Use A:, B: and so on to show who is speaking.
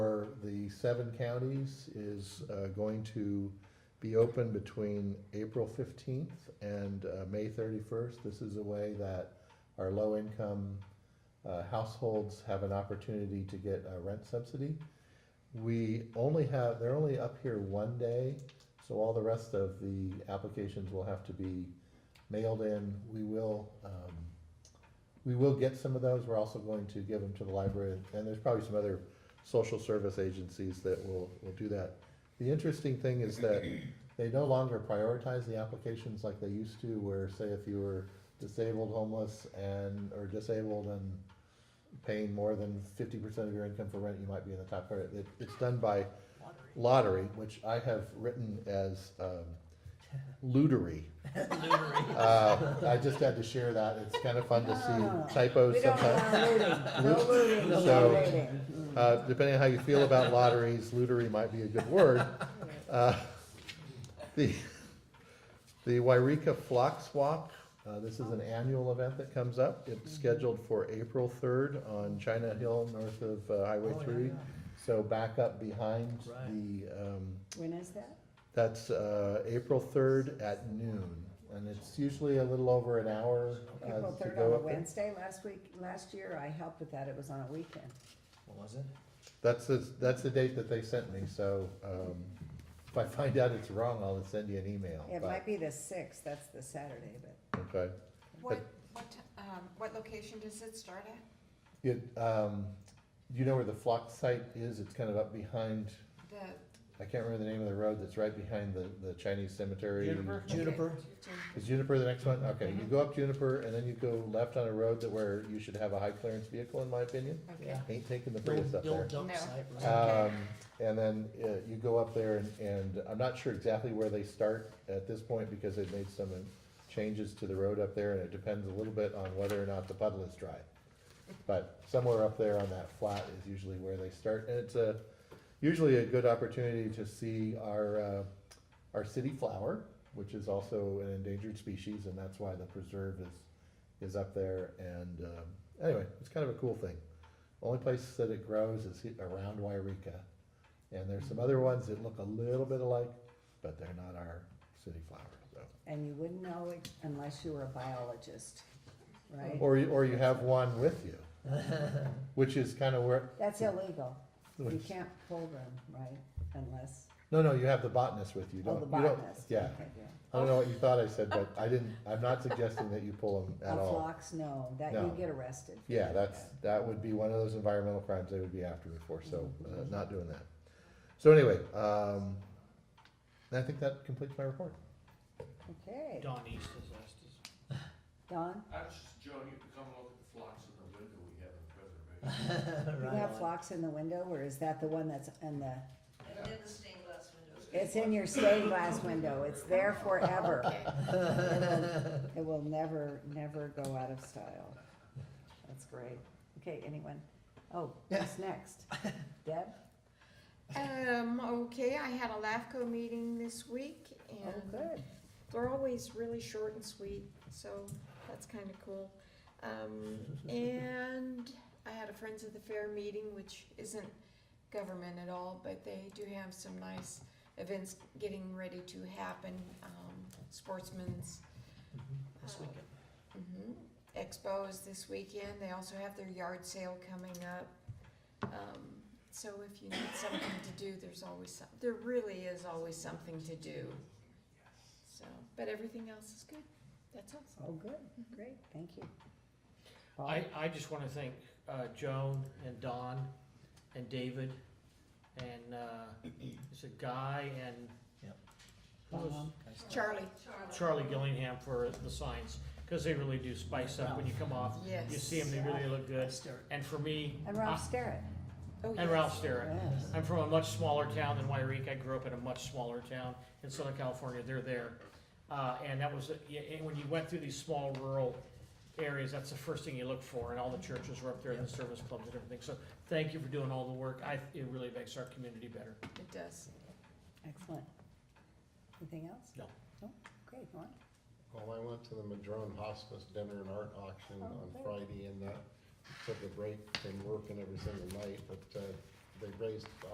A: the seven counties is uh, going to be open between April 15th and uh, May 31st. This is a way that our low-income uh, households have an opportunity to get a rent subsidy. We only have, they're only up here one day, so all the rest of the applications will have to be mailed in. We will, um, we will get some of those. We're also going to give them to the library, and there's probably some other social service agencies that will, will do that. The interesting thing is that they no longer prioritize the applications like they used to, where say if you were disabled, homeless, and, or disabled and paying more than fifty percent of your income for rent, you might be in the top part. It, it's done by lottery, which I have written as, um, lootery. Uh, I just had to share that. It's kind of fun to see typos
B: We don't
A: sometimes.
B: want looting, no looting, no
A: So-
B: looting.
A: Uh, depending on how you feel about lotteries, lootery might be a good word. Uh, The, the Wairika Flock Swap, uh, this is an annual event that comes up.
C: Mm-hmm.
A: It's scheduled for April third on China Hill, north of uh, Highway
C: Oh, yeah,
A: three.
C: yeah.
A: So back up behind
C: Right.
A: the, um,
B: When is that?
A: that's, uh, April third at noon. And it's usually a little over an hour, uh, to go
B: April
A: up
B: third on a
A: there.
B: Wednesday, last week, last year I helped with that, it was on a weekend.
C: What was it?
A: That's the, that's the date that they sent me, so, um, if I find out it's wrong, I'll send you an email.
B: It
A: but-
B: might be the sixth, that's the Saturday, but
A: Okay.
D: What, what, t- um, what location does it start at?
A: It, um, you know where the flock site is? It's kind of up behind,
D: The
A: I can't remember the name of the road that's right behind the, the Chinese cemetery.
C: Juniper? Juniper?
A: Is Juniper the next one? Okay, you go up Juniper and then you go left on a road that where you should have a high clearance vehicle, in my opinion.
D: Okay,
C: Yeah.
A: Ain't taking the
C: The old-
A: Prius up
C: the old
A: there.
C: dump
D: No.
C: site, right?
A: Um, and then, uh, you go up there and, and I'm not sure exactly where they start at this point because they've made some uh, changes to the road up there and it depends a little bit on whether or not the puddle is dry. But somewhere up there on that flat is usually where they start and it's a, usually a good opportunity to see our, uh, our city flower, which is also an endangered species and that's why the preserve is, is up there and, um, anyway, it's kind of a cool thing. Only place that it grows is he- around Wairika. And there's some other ones that look a little bit alike, but they're not our city flower, so.
B: and you wouldn't know it unless you were a biologist, right?
A: Or, you- or you have one with you, which is kind of where,
B: That's illegal. You
A: which-
B: can't pull them, right, unless,
A: no, no, you have the botanist with you,
B: oh,
A: don't,
B: the
A: you don't-
B: botanist.
A: Yeah,
B: Okay,
A: I don't know what you thought I said, but I didn't, I'm not suggesting that you pull them
B: A
A: at all.
B: flocks, no, that you
A: No.
B: get arrested. for
A: Yeah,
B: doing
A: that's,
B: that.
A: that would be one of those environmental crimes they would be after me for, so, uh, not doing that. So anyway, um, I think that completes my report.
B: Okay,
C: Don East is last. is-
B: Don,
E: I was just, Joan, you could come look at the flocks in the window we have in preservation.
B: you
C: Right
B: have
C: on.
B: flocks in the window, or is that the one that's in the,
F: And then the stained glass windows.
B: it's in your stained glass window, it's there forever.
D: okay.
B: It will never, never go out of style. That's great. Okay, anyone? Oh, who's next? Deb?
D: Um, okay, I had a LAFCO meeting this week
B: Oh,
D: and
B: good.
D: they're always really short and sweet, so that's kind of cool. Um, and I had a Friends of the Fair meeting, which isn't government at all, but they do have some nice events getting ready to happen. Um, sportsman's
C: This
D: uh,
C: weekend.
D: Mhm. Expo is this weekend, they also have their yard sale coming up. Um, So if you need something to do, there's always some, there really is always something to do. So, but everything else is good, that's awesome.
B: Oh, good. Great, thank you. Paul?
C: I, I just wanna thank, uh, Joan and Don and David and, uh, it's a guy and.
G: Yep.
C: Who was,
B: Um,
D: Charlie,
C: Charlie Gillingham for the signs, cause they really do spice up when you come off.
D: yes.
C: You see them, they really look good.
G: Start.
C: And for me,
B: And Ralph Sterrett.
D: Oh,
C: and
D: yes.
C: Ralph Sterrett.
B: Yes.
C: I'm from a much smaller town than Wyreek. I grew up in a much smaller town in Southern California. They're there. Uh, and that was, yeah, and when you went through these small rural areas, that's the first thing you look for. And all the churches were up there and the service clubs and everything. So thank you for doing all the work. I, it really makes our community better.
D: It does.
B: Excellent. Anything else?
C: No.
B: No? Great, Ron?
H: Well, I went to the Madrone Hospice Dinner and Art Auction
B: Oh,
H: on
B: great.
H: Friday and that, took a break from working every single night, but, uh, they raised